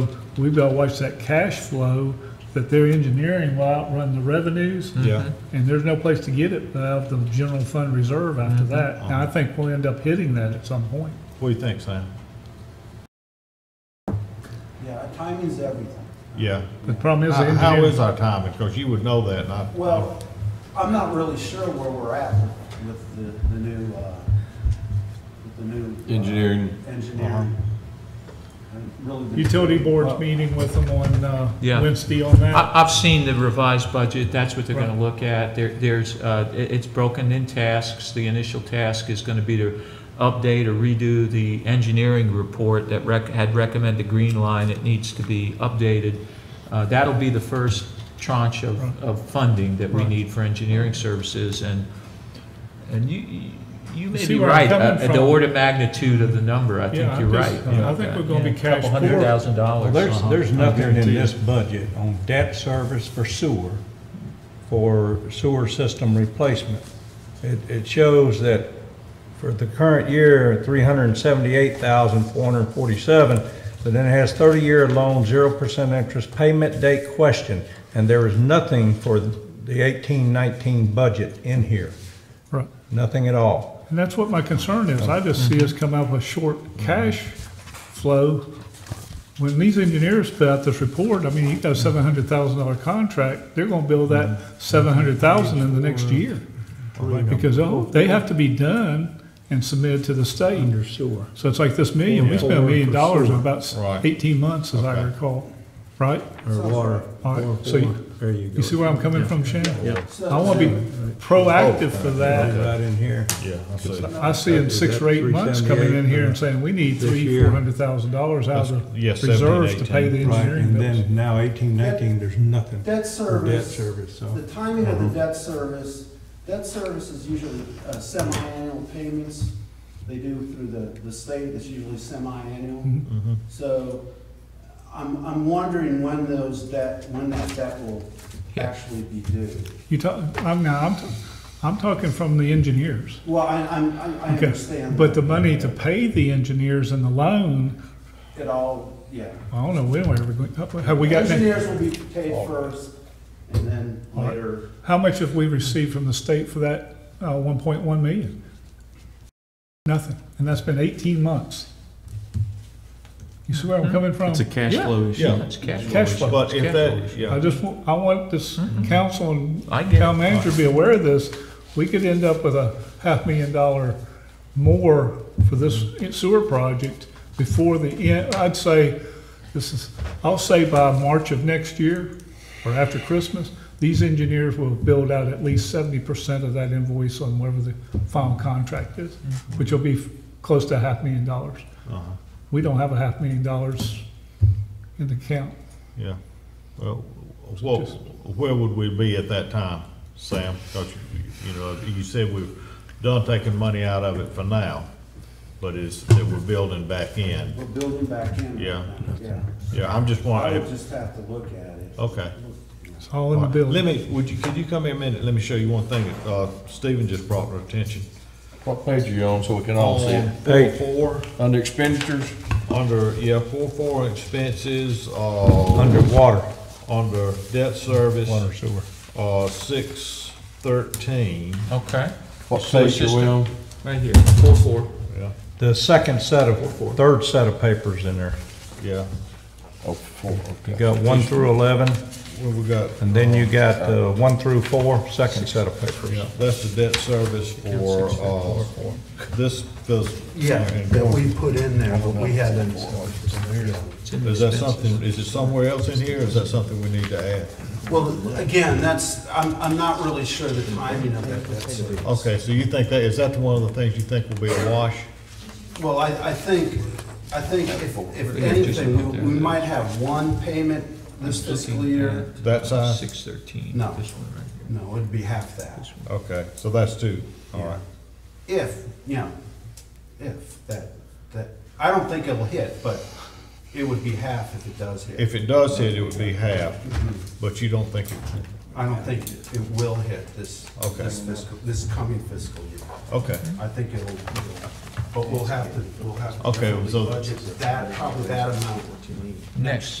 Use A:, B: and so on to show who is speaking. A: So we've got to watch that cash flow, that their engineering will outrun the revenues,
B: Yeah,
A: and there's no place to get it but out of the general fund reserve after
C: Mm-hmm.
A: that. And I think we'll end up hitting that at some point.
B: what do you think, Sam?
D: Yeah, timing's everything.
B: Yeah.
A: The problem is, the
B: How how is
A: engineering-
B: our timing? Because you would know that, and I.
D: Well, I'm not really sure where we're at with the, the new, uh, with the new. uh,
E: Engineering.
D: Engineering. And really the-
A: utility board's
D: Well,
A: meeting with them on uh,
C: Yeah.
A: Wednesday on that.
C: I, I've seen the revised budget, that's what they're
A: Right.
C: gonna look at. There, there's, uh, it, it's broken in tasks. The initial task is gonna be to update or redo the engineering report that rec, had recommended green line. It needs to be updated. Uh, that'll be the first tranche
A: Right.
C: of, of funding that we
A: Right.
C: need for engineering services and, and you, you
A: You
C: may
A: see
C: be
A: where I'm
C: right.
A: coming
C: Uh,
A: from.
C: The order of magnitude of the number, I
A: Yeah,
C: think
A: I'm
C: you're
A: just-
C: right.
A: I think we're gonna be
C: Yeah,
A: cash
C: Couple hundred
A: poor.
C: thousand
F: Well,
C: dollars.
F: there's,
C: uh-huh.
F: there's nothing in this budget on debt service for sewer, for sewer system replacement. It, it shows that for the current year, three hundred and seventy-eight thousand, four hundred and forty-seven, but then it has thirty-year loan, zero percent interest, payment date question, and there is nothing for the eighteen, nineteen budget in here,
A: Right.
F: nothing at all.
A: And that's what my concern is. I just see us come out with short cash flow. When these engineers put out this report, I mean, you got a seven hundred thousand dollar contract, they're gonna build that seven hundred thousand in the next year. Because, oh, they have to be done and submitted to the state.
F: Under sewer.
A: So it's like this million, we spent a million dollars in about s-
B: Right.
A: eighteen months, as I
B: Okay.
A: recall, right?
F: Or water.
A: All right, so you-
F: There you go.
A: You see where I'm coming from, Shannon?
D: so-
A: I wanna be proactive for that.
F: Right in here.
B: Yeah, I see.
A: I see in six or eight months coming in here and saying, we need
F: This
A: three,
F: year.
A: four hundred thousand dollars out of
B: Yes,
A: the
B: 17,
A: reserves to pay the
B: 18.
F: Right,
A: engineering
F: and
A: bills.
F: then now eighteen, nineteen, there's nothing.
D: Debt
F: for Debt
D: service,
F: service,
D: the
F: so.
D: timing of the debt service, debt service is usually uh, semi-annual payments. They do through the, the state, it's usually semi-annual.
A: Mhm.
B: Mhm.
D: So I'm, I'm wondering when those debt, when that debt will actually be due.
A: You talk, I'm, now, I'm, t- I'm talking from the engineers.
D: Well, I, I'm- I, I
A: Okay,
D: understand.
A: But the money to pay the engineers and the loan,
D: It all, yeah.
A: I don't know, when we're ever going, have we gotten,
D: Engineers will be paid first and then
A: All right.
D: later.
A: how much have we received from the state for that, uh, one point one million? Nothing, and that's been eighteen months. You see where I'm coming from?
E: Hmm. It's a cash
A: Yeah.
E: flow issue.
B: Yeah.
C: That's cash flow.
A: Cash flow.
B: But if
C: Cash
B: that,
C: flow.
A: I
B: yeah,
A: just, want- I want this council and
C: Mm-hmm. I get it.
A: town manager to be aware of this. We could end up with a half million dollar more for this sewer project before the end. I'd say, this is, I'll say by March of next year, or after Christmas, these engineers will build out at least seventy percent of that invoice on whatever the final contract is,
C: Mm-hmm.
A: which will be f- close to a half million dollars.
B: Uh-huh.
A: We don't have a half million dollars in the account.
B: yeah. Well, what,
A: Just-
B: where would we be at that time, Sam? Because, you know, you said we've done taking money out of it for now, but it's, that we're building back in.
D: We're building back in. right
B: Yeah.
D: now, Yeah.
B: Yeah, I'm just
D: I
B: wondering,
D: would
B: if-
D: just have to look at it.
B: okay.
A: It's all in the building.
B: Let me, would you, could you come here a minute? Let me show you one thing that, uh, Stephen just brought to our attention.
E: What page are you on so we can all see it?
B: On Four,
E: Under expenditures?
B: under, yeah, four, four expenses, uh.
F: Underwater,
B: Under debt service.
F: water sewer.
B: Uh, six thirteen.
C: Okay,
E: What
C: So it's
E: page are we
C: just-
E: on?
C: right here, four, four.
B: Yeah,
F: The second set of, third set of papers in there.
B: yeah.
E: Oh, four,
F: You
E: okay.
F: got one through eleven,
B: Well, we got, uh,
F: and then you got the one through four, second set of papers.
B: yeah, that's the debt service for, uh, this fiscal.
G: Yeah, that we put in there, but we haven't.
C: It's in the
B: Is that
C: expenses.
B: something, is it somewhere else in here, or is that something we need to add?
D: Well, again, that's, I'm, I'm not really sure the timing of that. That's-
B: Okay, so you think that, is that one of the things you think will be a wash?
D: Well, I, I think, I think if, if
C: Yeah, just
D: anything,
C: up
D: we-
C: there.
D: we might have one payment this fiscal year.
B: That size?
C: Six thirteen,
D: No.
C: this one right here.
D: No, it'd be half that.
B: Okay, so that's two, all right.
D: If, you know, if that, that, I don't think it'll hit, but it would be half if it does hit.
B: If it does hit, it would be half, but you don't think it,
D: I don't think it it will hit this,
B: Okay.
D: this fiscal, this coming fiscal year.
B: okay,
D: I think it'll, it'll- But we'll have to, we'll have to.
H: Okay,
D: definitely
H: so-
D: Budget that, probably that amount what you need.
C: Next.